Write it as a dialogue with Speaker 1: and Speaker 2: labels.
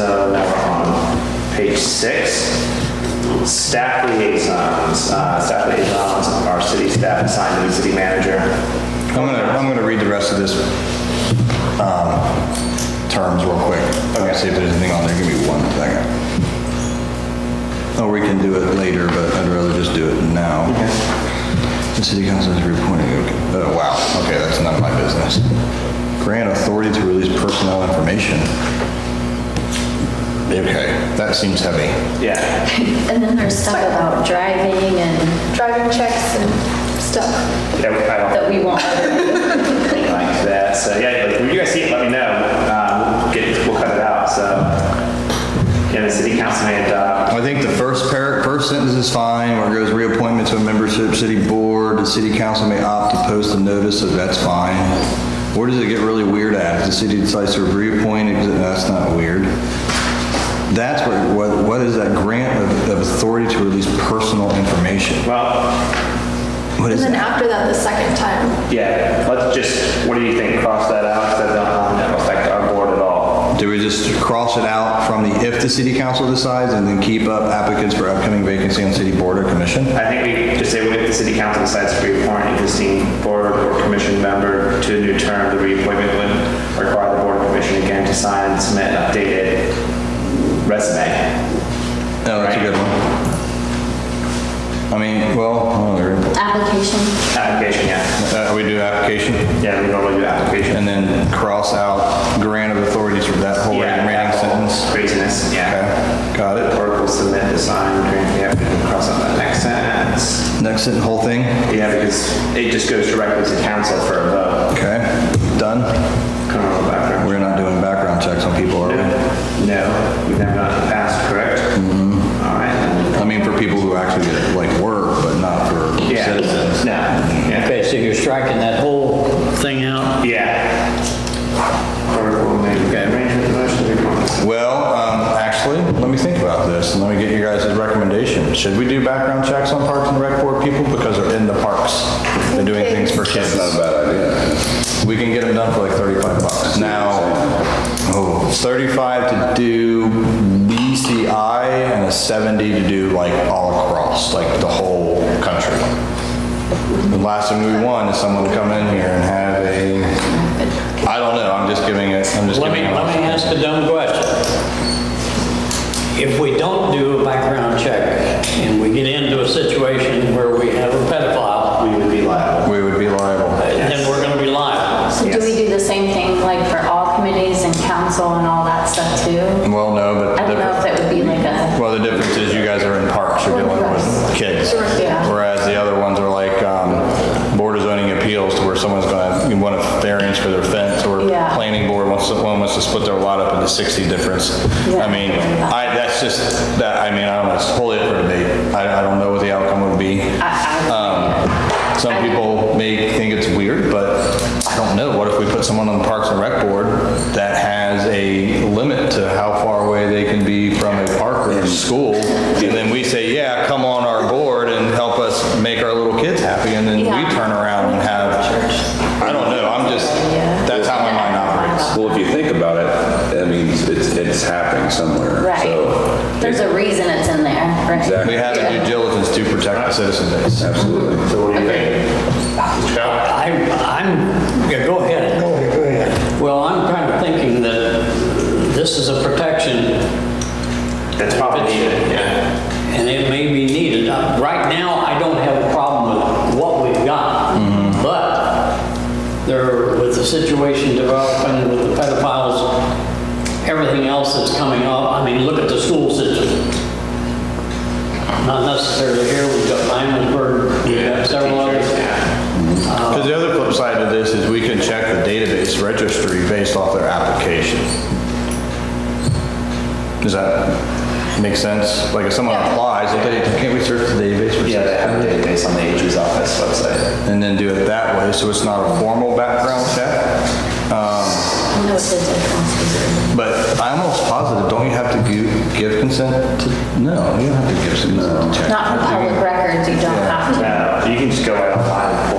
Speaker 1: Oh, uh, six, staff liaisons. Uh, Staff liaisons are city staff assigned to the city manager.
Speaker 2: I'm gonna, I'm gonna read the rest of this, um, terms real quick. Okay. See if there's anything on there, give me one second. Or we can do it later, but I'd rather just do it now. The city council is reporting, okay. oh, wow, okay, that's none of my business. Grant authority to release personnel information. Okay, that seems heavy.
Speaker 1: Yeah.
Speaker 3: And then there's stuff about driving and
Speaker 4: driving checks and stuff.
Speaker 1: Yeah, I don't-
Speaker 3: that we won't.
Speaker 1: like that. So yeah, like, when you guys see it, let me know. Um, we'll, get, we'll cut it out. So yeah, the city uh, council may adopt.
Speaker 2: I think the first par first sentence is fine, where it goes reappointment to a membership city board, the city council may opt to post a notice, so that's fine. Where does it get really weird at? If the city decides to reappoint, exi- that's not weird. That's what, what, what is that grant of, of authority to release personal information?
Speaker 1: Well,
Speaker 2: What
Speaker 4: And
Speaker 2: is
Speaker 4: then
Speaker 2: that?
Speaker 4: after that, the second time.
Speaker 1: yeah. Let's just. What do you think? Cross that out. So that don't um, affect our board at all.
Speaker 2: Do we just cross it out from the if the city council decides and then keep up applicants for upcoming vacancy on city board or commission?
Speaker 1: I think we just say if the city council decides to reappoint an existing board or commission member to a new term, the reappointment would require the board or commission again to sign and submit an updated resume.
Speaker 2: Oh, that's a good one. I mean, well, oh, there we go.
Speaker 3: Application,
Speaker 1: Application, yeah.
Speaker 2: Uh, we do application,
Speaker 1: Yeah, we normally do application.
Speaker 2: and then cross out grant of authorities for that whole
Speaker 1: Yeah,
Speaker 2: remaining
Speaker 1: that whole
Speaker 2: sentence.
Speaker 1: Craziness, yeah.
Speaker 2: Okay, got it.
Speaker 1: Or we'll submit the sign, grant, yeah, we can cross out that next sentence.
Speaker 2: Next sentence, whole thing,
Speaker 1: Yeah, because it just goes directly to council for a vote.
Speaker 2: okay, done.
Speaker 1: Criminal background.
Speaker 2: We're not doing background checks on people, are we?
Speaker 1: No, we've never done it in the past, correct? Mm-hmm. All right. then.
Speaker 2: I mean, for people who actually get, like, work, but not for
Speaker 1: Yeah.
Speaker 2: citizens.
Speaker 1: No, yeah.
Speaker 5: Okay, so you're striking that whole thing out?
Speaker 1: Yeah. Or we'll make an arrangement with the motion to appoint.
Speaker 2: Well, um, actually, let me think about this, and let me get you guys' recommendation. Should we do background checks on Parks and Rec Board people because they're in the parks? They're doing things for kids.
Speaker 6: Not a bad idea.
Speaker 2: We can get them done for like 35 bucks. Now, oh, 35 to do BCI and a 70 to do like all across, like the whole country. The last thing we want is someone to come in here and have a, I don't know, I'm just giving it, I'm just
Speaker 5: Let me,
Speaker 2: giving it.
Speaker 5: let me ask a dumb question. If we don't do a background check and we get into a situation where we have a pedophile,
Speaker 1: We would be liable.
Speaker 2: We would be liable.
Speaker 5: then we're gonna be liable.
Speaker 3: so do we do the same thing like for all committees and council and all that stuff too?
Speaker 2: Well, no, but the
Speaker 3: I don't know if
Speaker 2: difference,
Speaker 3: it would be like a,
Speaker 2: well, the difference is you guys are in parks, you're dealing with kids.
Speaker 3: yeah.
Speaker 2: Whereas the other ones are like um, board of zoning appeals to where someone's going to want a variance for their fence or
Speaker 3: Yeah.
Speaker 2: planning board wants, to- one wants to split their lot up into 60 difference.
Speaker 3: Yeah.
Speaker 2: I mean, I, that's just, that, I mean, I don't know, it's wholly up for debate. I, I don't know what the outcome would be. Um, Some people may think it's weird, but I don't know. What if we put someone on the Parks and Rec Board that has a limit to how far away they can be from a park or a school? And then we say, yeah, come on our board and help us make our little kids happy, and then
Speaker 3: Yeah.
Speaker 2: we turn around and have, I don't know, I'm just, that's how my mind operates.
Speaker 6: Well, if you think about it, I mean, it's, it's happening somewhere. So,
Speaker 3: Right. There's a reason it's in there, right?
Speaker 6: Exactly.
Speaker 2: We have to do diligence to protect the citizen base.
Speaker 6: absolutely.
Speaker 1: So what do you think?
Speaker 5: I, I'm, yeah, go ahead. Go ahead, go ahead. Well, I'm kind of thinking that this is a protection
Speaker 1: That's probably needed, yeah.
Speaker 5: and it may be needed. Uh, Right now, I don't have a problem with what we've got,
Speaker 1: Mm-hmm.
Speaker 5: but there, with the situation developing with the pedophiles, everything else that's coming up, I mean, look at the school system. Not necessarily here, we've got Lymansburg, we've got several others.
Speaker 2: Because the other flip side of this is we can check the database registry based off their application. Does that make sense? Like if someone applies, if they, can't we search the database? for
Speaker 1: Yeah, they have a
Speaker 2: citizenship?
Speaker 1: database on the AG's office website.
Speaker 2: And then do it that way, so it's not a formal background check? Um,
Speaker 3: I know it's a difference.
Speaker 2: But I'm almost positive, don't you have to gi- give consent to, no, you don't have to give consent to check.
Speaker 3: Not for public records, you don't have to.
Speaker 1: No, you can Uh, just go right online and